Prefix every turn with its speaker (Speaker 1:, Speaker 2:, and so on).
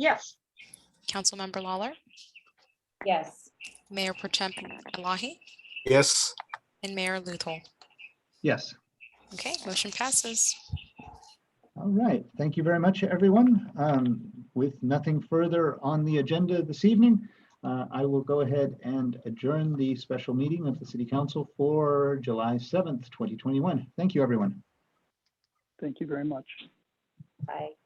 Speaker 1: Yes.
Speaker 2: Councilmember Lawler,
Speaker 3: Yes.
Speaker 2: Mayor Pro Tem Elahi,
Speaker 4: Yes.
Speaker 2: and Mayor Luthol.
Speaker 5: Yes.
Speaker 2: Okay, motion passes.
Speaker 5: All right. Thank you very much, everyone. Um, With nothing further on the agenda this evening, uh, I will go ahead and adjourn the special meeting of the City Council for July 7th, 2021. Thank you, everyone.
Speaker 6: Thank you very much.
Speaker 3: Bye.